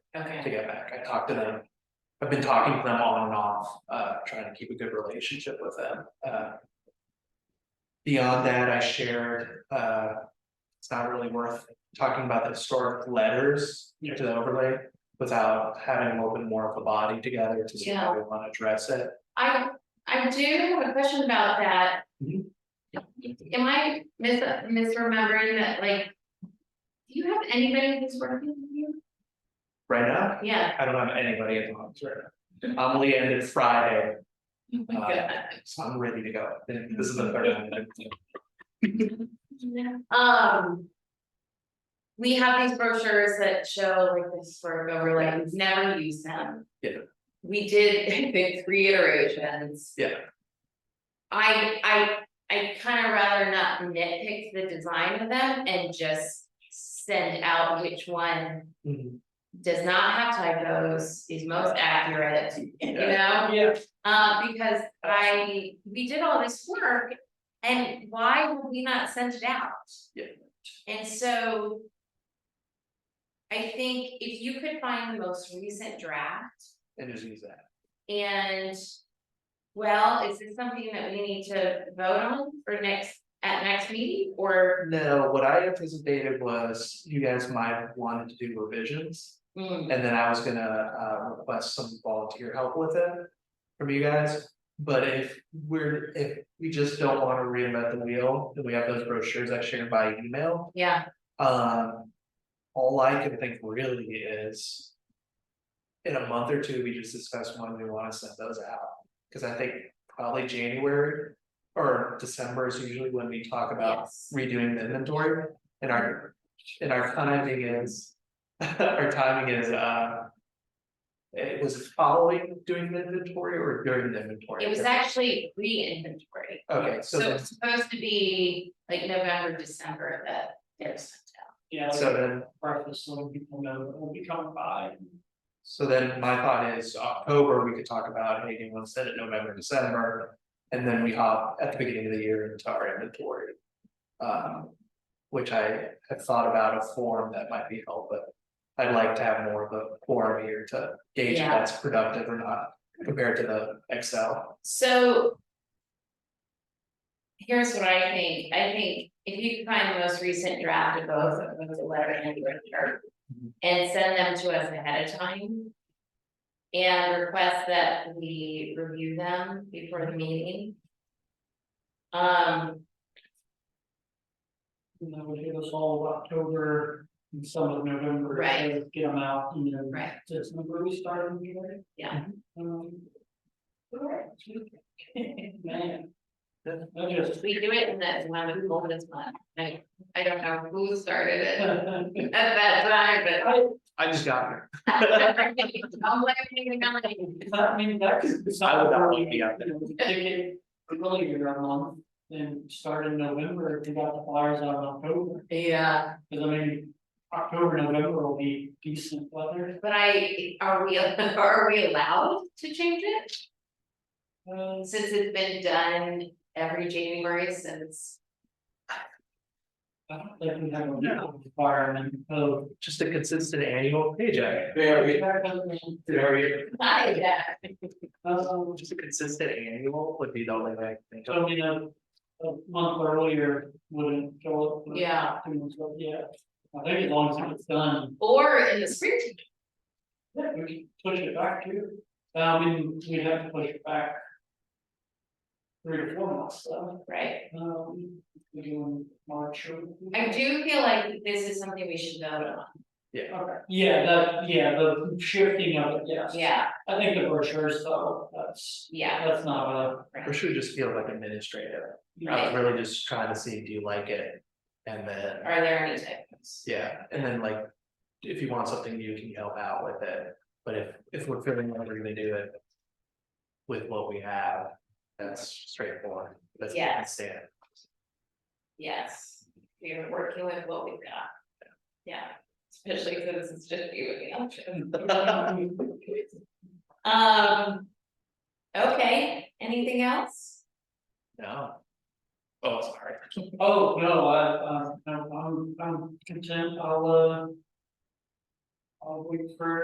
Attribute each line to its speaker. Speaker 1: Okay.
Speaker 2: to get back. I talked to them. I've been talking to them on and off, uh, trying to keep a good relationship with them, uh. Beyond that, I shared, uh, it's not really worth talking about the historic letters
Speaker 3: Yeah.
Speaker 2: to the overlay. Without having a little bit more of a body together to see how
Speaker 1: Yeah.
Speaker 2: we wanna address it.
Speaker 1: I, I do have a question about that.
Speaker 2: Mhm.
Speaker 1: Am I mis- misremembering that, like? Do you have anybody who's working with you?
Speaker 2: Right now,
Speaker 1: Yeah.
Speaker 2: I don't have anybody at the moment right now. I'm only ended Friday,
Speaker 1: Oh
Speaker 2: my God. so I'm ready to go. This is the third one.
Speaker 1: Um. We have these brochures that show like this sort of overlay, we've never used them.
Speaker 2: Yeah.
Speaker 1: We did, I think, three iterations.
Speaker 2: Yeah.
Speaker 1: I, I, I kind of rather not nitpick the design of them and just send out which one
Speaker 2: Mhm.
Speaker 1: does not have typos, is most accurate, you know?
Speaker 2: Yeah.
Speaker 1: Uh, because I, we did all this work, and why would we not send it out?
Speaker 2: Yeah.
Speaker 1: And so. I think if you could find the most recent draft
Speaker 2: And just use that.
Speaker 1: and. Well, is this something that we need to vote on for next, at next meeting, or?
Speaker 2: No, what I anticipated was you guys might wanted to do revisions.
Speaker 1: Hmm,
Speaker 2: And then I was gonna uh request some volunteer help with it from you guys. But if we're, if we just don't wanna reinvent the wheel, then we have those brochures I shared by email.
Speaker 1: yeah,
Speaker 2: Um, all I can think really is. In a month or two, we just discuss when we wanna send those out, cause I think probably January. Or December is usually when we talk about
Speaker 1: yes,
Speaker 2: redoing the inventory and our, and our timing is. Our timing is, uh. It was following doing the inventory or during the inventory?
Speaker 1: it was actually re-inventory,
Speaker 2: Okay, so
Speaker 1: so
Speaker 2: then,
Speaker 1: it's supposed to be like November, December that they're sent out.
Speaker 3: Yeah, like
Speaker 2: so then,
Speaker 3: breakfast, so people know, that we'll be coming by.
Speaker 2: so then my thought is October, we could talk about, hey, do you want to set it November, December? And then we hop at the beginning of the year into our inventory. Um, which I have thought about a form that might be helpful, but. I'd like to have more of a forum here to gauge if
Speaker 1: Yeah.
Speaker 2: that's productive or not compared to the Excel.
Speaker 1: So. Here's what I think, I think if you can find the most recent draft of both of both the letter and the return.
Speaker 2: Mhm.
Speaker 1: And send them to us ahead of time. And request that we review them before the meeting. Um,
Speaker 3: And then we'll hit us all of October and some of November. to
Speaker 1: Right.
Speaker 3: Get them out, you know.
Speaker 1: right,
Speaker 3: December we started, you know,
Speaker 1: yeah,
Speaker 3: um. Man. I just.
Speaker 1: we do it in that one of the oldest one, I, I don't know who started it at that time,
Speaker 3: I,
Speaker 2: I just got here.
Speaker 1: but. I'm blaming the company.
Speaker 3: I mean, that could. it's
Speaker 2: I would
Speaker 3: not
Speaker 2: not
Speaker 3: really,
Speaker 2: want to be out there.
Speaker 3: you know, Take it earlier in our month, then start in November, if we got the flyers out in October,
Speaker 1: Yeah.
Speaker 3: cause I mean, October, November will be decent weather.
Speaker 1: But I, are we, are we allowed to change it?
Speaker 3: Uh,
Speaker 1: Since it's been done every January since,
Speaker 3: I don't think we have a legal requirement, so.
Speaker 2: Just a consistent annual paycheck. Very.
Speaker 1: I, yeah,
Speaker 3: Um,
Speaker 2: Just a consistent annual would be the only way I can think of.
Speaker 3: so, you know, a month earlier wouldn't show up. with
Speaker 1: Yeah.
Speaker 3: too much, but Yeah, I think as long as it's done,
Speaker 1: or in the spring,
Speaker 3: yeah, we can push it back too. I mean, we have to push it back. Three or four months, so,
Speaker 1: right?
Speaker 3: um, we can March or.
Speaker 1: I do feel like this is something we should vote on,
Speaker 3: Okay, yeah, that, yeah, the shifting of it, yes.
Speaker 1: yeah,
Speaker 3: I think the brochures though, that's,
Speaker 1: yeah,
Speaker 3: that's not a.
Speaker 2: Or should we just feel like administrative? I
Speaker 1: right,
Speaker 2: was really just trying to see, do you like it? And then,
Speaker 1: are there any typos?
Speaker 2: yeah, and then like, if you want something new, can you help out with it? But if, if we're feeling like we're gonna do it with what we have, that's straightforward, that's what I
Speaker 1: Yes.
Speaker 2: stand.
Speaker 1: Yes, we're working with what we've got, yeah, especially since it's just you and the option. Um, okay, anything else?
Speaker 2: No. Oh, sorry.
Speaker 3: Oh, no, I, uh, I'm, I'm content, I'll, uh. I'll wait for